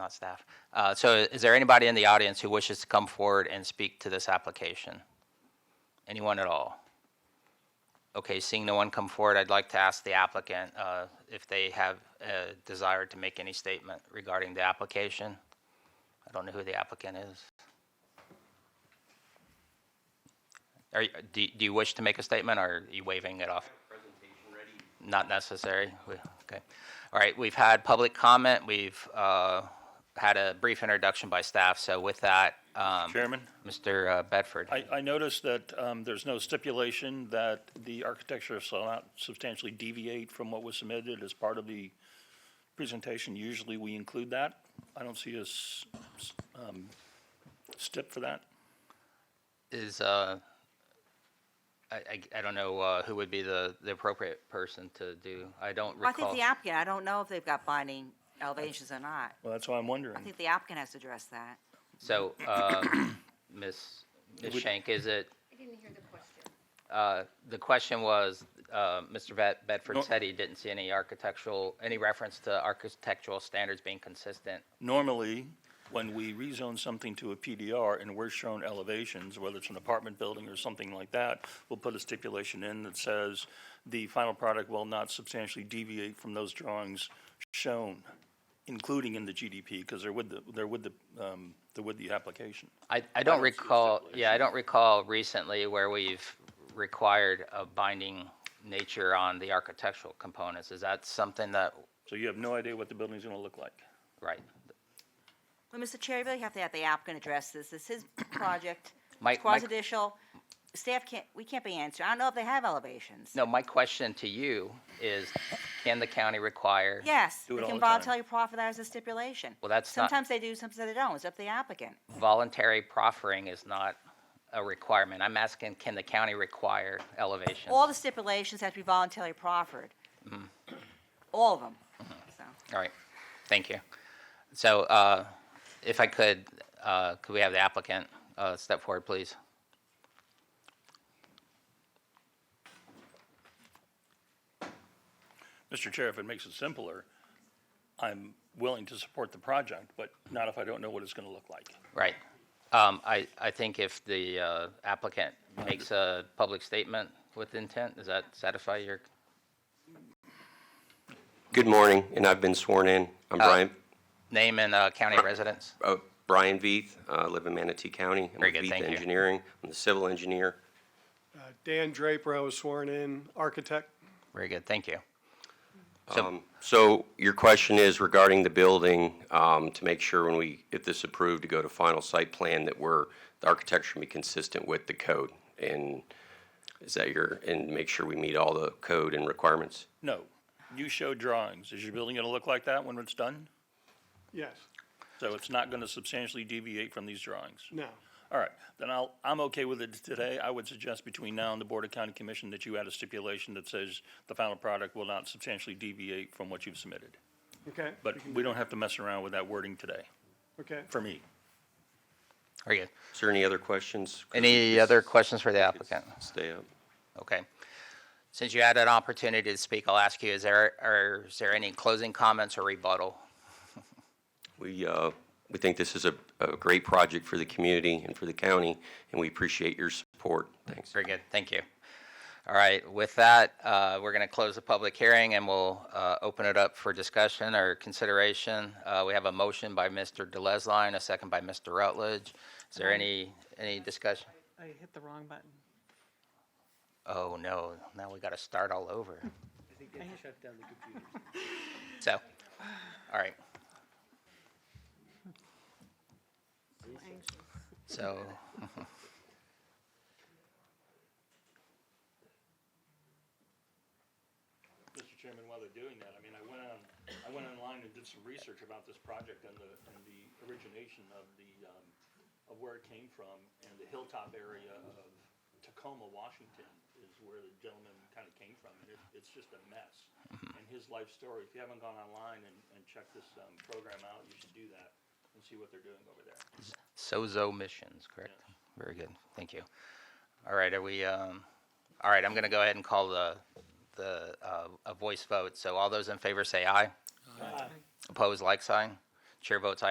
not staff. Uh, So is there anybody in the audience who wishes to come forward and speak to this application? Anyone at all? Okay, seeing no one come forward, I'd like to ask the applicant uh, if they have a desire to make any statement regarding the application. I don't know who the applicant is. Are, you- do do you wish to make a statement, or are you waving it off? Not necessary? We- Okay. All right, we've had public comment, we've uh, had a brief introduction by staff, so with that, um, Chairman? Mr. uh, Bedford. I, I noticed that um, there's no stipulation that the architecture shall not substantially deviate from what was submitted as part of the presentation. Usually, we include that. I don't see a s- s- um, stip for that. is, uh, I, I, I don't know, uh, who would be the, the appropriate person to do, I don't I think recall. the applicant, I don't know if they've got binding elevations or not. Well, that's mm. why I'm I wondering. think the applicant has to address that. So, um, Ms., Ms. Shank, is it, I didn't hear the question. uh, the question was, uh, Mr. Vet- Bedford No. said he didn't see any architectural, any reference to architectural standards being consistent. Normally, when we rezone something to a PDR and we're shown elevations, whether it's an apartment building or something like that, we'll put a stipulation in that says the final product will not substantially deviate from those drawings shown, including in the GDP, because they're with the, they're with the, um, they're with the application. I, I don't don't see a recall, yeah, I stipulation. don't recall recently where we've required a binding nature on the architectural components. Is that something that, So you have no idea what the building's gonna look like. right? Well, Mr. Chair, you really have to have the applicant address this. This is his project. My- It's my- quasi-judicial. Staff can't, we can't be answering. I don't know if they have elevations. No, my question to you is, can the county require? Yes, Do it they all can the time. voluntarily proffer that as a stipulation. Well, that's not- Sometimes they do, sometimes they don't. It's up to the applicant. Voluntary proffering is not a requirement. I'm asking, can the county require elevation? All the stipulations have to be voluntarily proffered. Mm-hmm. All of them, so. All right, thank you. So uh, if I could, uh, could we have the applicant uh, step forward, please? Mr. Chair, if it makes it simpler, I'm willing to support the project, but not if I don't know what it's gonna look like. Right. Um, I, I think if the uh, applicant makes a public statement with intent, does that satisfy your? Good morning, and I've been sworn in. I'm Brian, Name and uh, county residence? uh, Brian Veith, uh, live in Manatee County. I'm Very with good, Veith thank you. Engineering, I'm the civil engineer. Uh, Dan Draper, I was sworn in, architect. Very good, thank you. So, So your question is regarding the building, um, to make sure when we, if this approved, to go to final site plan, that we're, the architecture be consistent with the code, and is that your, and make sure we meet all the code and requirements? No, you show drawings. Is your building gonna look like that when it's done? Yes, So it's not going to substantially deviate from these drawings? no. All right, then I'll, I'm okay with it today. I would suggest between now and the Board of County Commission that you add a stipulation that says the final product will not substantially deviate from what you've submitted. Okay, But we don't have to mess around with that wording today, okay. for me. very good. Is there any other questions? 'Cause we Any could other questions for the applicant? Stay up. Okay. Since you had an opportunity to speak, I'll ask you, is there, are, is there any closing comments or rebuttal? We, uh, we think this is a, a great project for the community and for the county, and we appreciate your support. Thanks. Very good, thank you. All right, with that, uh, we're going to close the public hearing and we'll, uh, open it up for discussion or consideration. Uh, we have a motion by Mr. Delesline, a second by Mr. Rutledge. Is there any, any discussion? I hit the wrong button. Oh, no, now we got to start all over. So, all right. So, Mr. Chairman, while they're doing that, I mean, I went on, I went online and did some research about this project and the, and the origination of the, um, of where it came from, and the hilltop area of Tacoma, Washington is where the gentleman kind of came from, and it, it's just a mess. And his life story, if you haven't gone online and, and checked this, um, program out, you should do that and see what they're doing over there. Sozo Missions, correct? Very good, thank you. All right, are we, um, all right, I'm gonna go ahead and call the, the, uh, a voice vote. So all those in favor say aye. Opposed, like sign. Chair votes aye,